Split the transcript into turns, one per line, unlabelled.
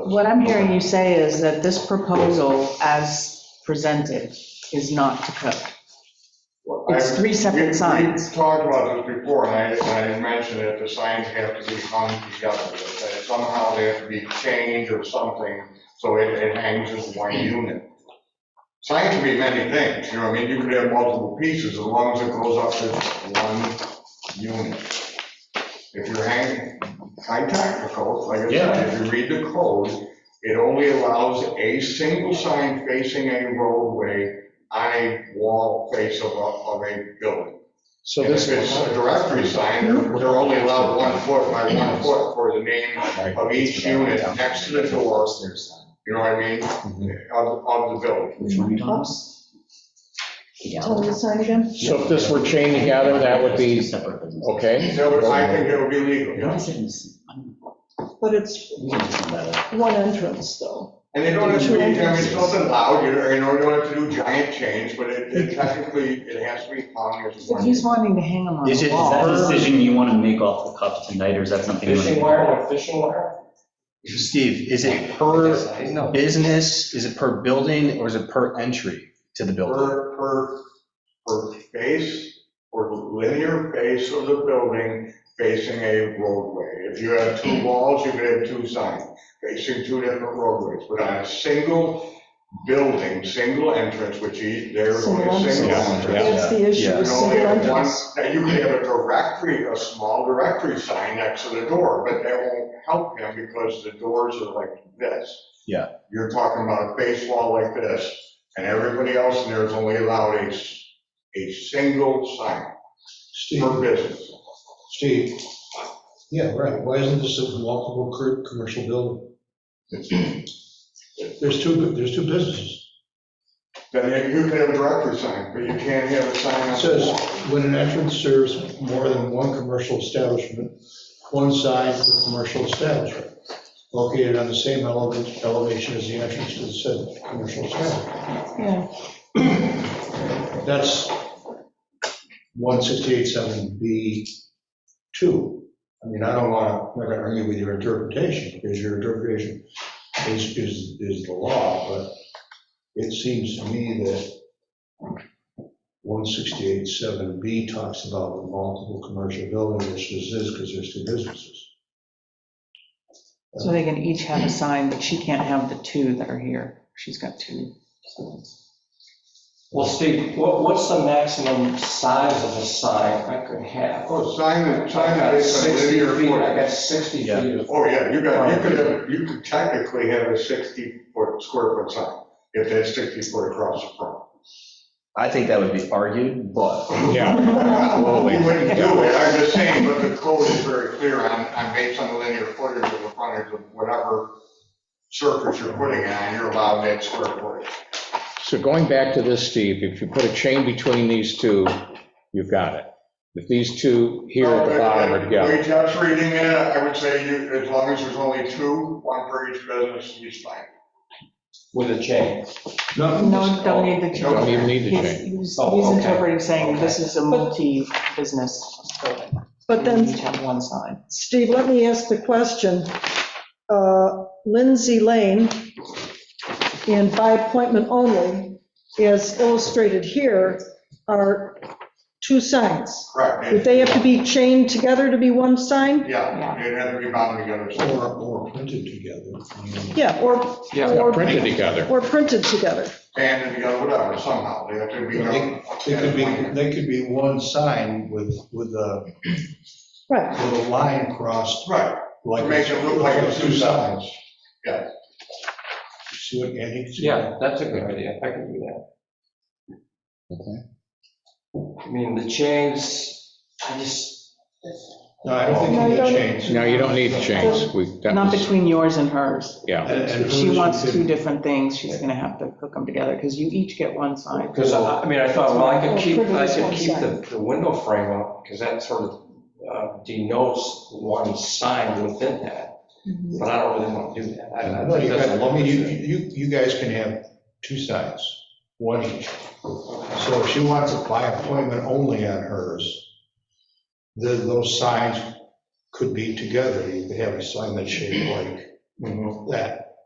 What I'm hearing you say is that this proposal as presented is not to code. It's three
We-
separate signs.
We talked about this before, and I, and I mentioned that the signs have to be hung together, that somehow they have to be changed or something, so it, it hangs as one unit. Sign can be many things, you know, what I mean, you could have multiple pieces, as long as it goes up to one unit. If you're hanging, I'm technical, like I said, if you read the code, it only allows a single sign facing a roadway on a wall face of a, of a building.
So
And
this
if it's a
is,
directory sign, they're they're only allowed one foot by one foot for the name,
Of
each unit next to the door.
doors.
you know what I mean,
Mm-hmm.
of, of the building.
Which one?
Oops,
Yeah.
tell me the sign again.
so if this were chained together, that would
Two
be,
separate businesses.
okay?
That would- I think that would be legal,
Why
yeah.
is it in this- I don't know.
But it's
We can just let it-
one entrance, though.
And they don't have to be, I mean, it's nothing loud, you know, you know, you don't have to do giant change, but it it technically, it has to be hung as
But
one.
he's wanting to hang them on
Is
the
it, is that a
wall.
decision you want to make off the cuff tonight, or is that something? you wanna-
Fishing wire with fishing wire?
Steve, is it per
No.
business, is it per building, or is it per entry to the building?
per, per, per face or linear face of the building facing a roadway. If you have two walls, you could have two signs facing two different roadways, but on a single building, single entrance, which is, there's only
Single
a single
entrance.
entrance.
That's the issue,
Yeah.
You
is
can
single
only have one,
entrance.
now you could have a directory, a small directory sign next to the door, but that won't help him because the doors are like this.
Yeah.
You're talking about a face wall like this, and everybody else in there is only allowed a, s- a single sign per
Steve,
business.
Steve, yeah, right, why isn't this a walkable cur- commercial building? There's two, there's two businesses.
Then you could have a directory sign, but you can't have a sign
It
on the
says,
wall.
when an entrance serves more than one commercial establishment, one side of the commercial establishment, located on the same element, elevation as the entrance to the said commercial establishment.
Yeah,
That's 1687B2. I mean, I don't want to, I'm not going to argue with your interpretation, because your interpretation is, is, is the law, but it seems to me that 1687B talks about the multiple commercial buildings, which this is, because there's two businesses.
So they can each have a sign, but she can't have the two that are here. She's got two.
Well, Steve, what, what's the maximum size of a sign I could have?
Oh, sign,
I
sign
got
is a
60
linear
feet, I
foot.
got 60 feet.
Yeah.
of-
Oh, yeah, you got, you could have, you could technically have a 60 foot, square foot sign, if that's 60 foot across the front.
I think that would be argued, but.
Yeah.
Well, We wouldn't do it, I'm just saying, but the code is very clear on, on based on the linear footage of the frontage of whatever surface you're putting on, you're allowed that square footage.
So going back to this, Steve, if you put a chain between these two, you've got it. If these two here at the bottom are
The
together,
way Jeff's reading it, I would say you, as long as there's only two, one per each business, you fine.
With a chain.
No, don't need the
No,
don't
two.
even need the
He's
chain.
he's-
Oh,
he's
okay.
interpreting saying this is a
But-
multi-business building.
but then
Each have one sign.
Steve, let me ask the question. Uh, Lindsay Lane, and by appointment only, as illustrated here, are two signs.
Correct.
Would they have to be chained together to be one sign?
Yeah, it had to be bound together. so-
Or, or printed together. I mean,
Yeah, or,
Yeah,
or
printed together.
or printed together.
Banded together, whatever, somehow, they have to be.
They could be, they could be one sign with, with a,
Right,
with a line crossed
Right,
Like,
it makes it look like it's two sides.
See what Andy?
Yeah, that's a good idea, I can do that. I mean, the chains, I just,
No, I don't think
No,
you
you
need
don't-
chains.
No, you don't need the chains. We, that
Not
was,
between yours and hers.
yeah.
And- and
If she
who's-
wants two different things, she's going to have to hook them together because you each get one sign.
because I, I mean, I thought, well, I could keep, I
Privilege
could
one
keep
sign.
the, the window frame up, because that sort of uh, denotes one sign within that.
Mm-hmm.
But I don't really want to do that. I- I
No,
think
you
that's a
got, I
lumber
mean, you,
thing.
you, you guys can have two sides, one each. So if she wants it by appointment only on hers, then those signs could be together. You could have a sign that's shaped like
Mhm.
that.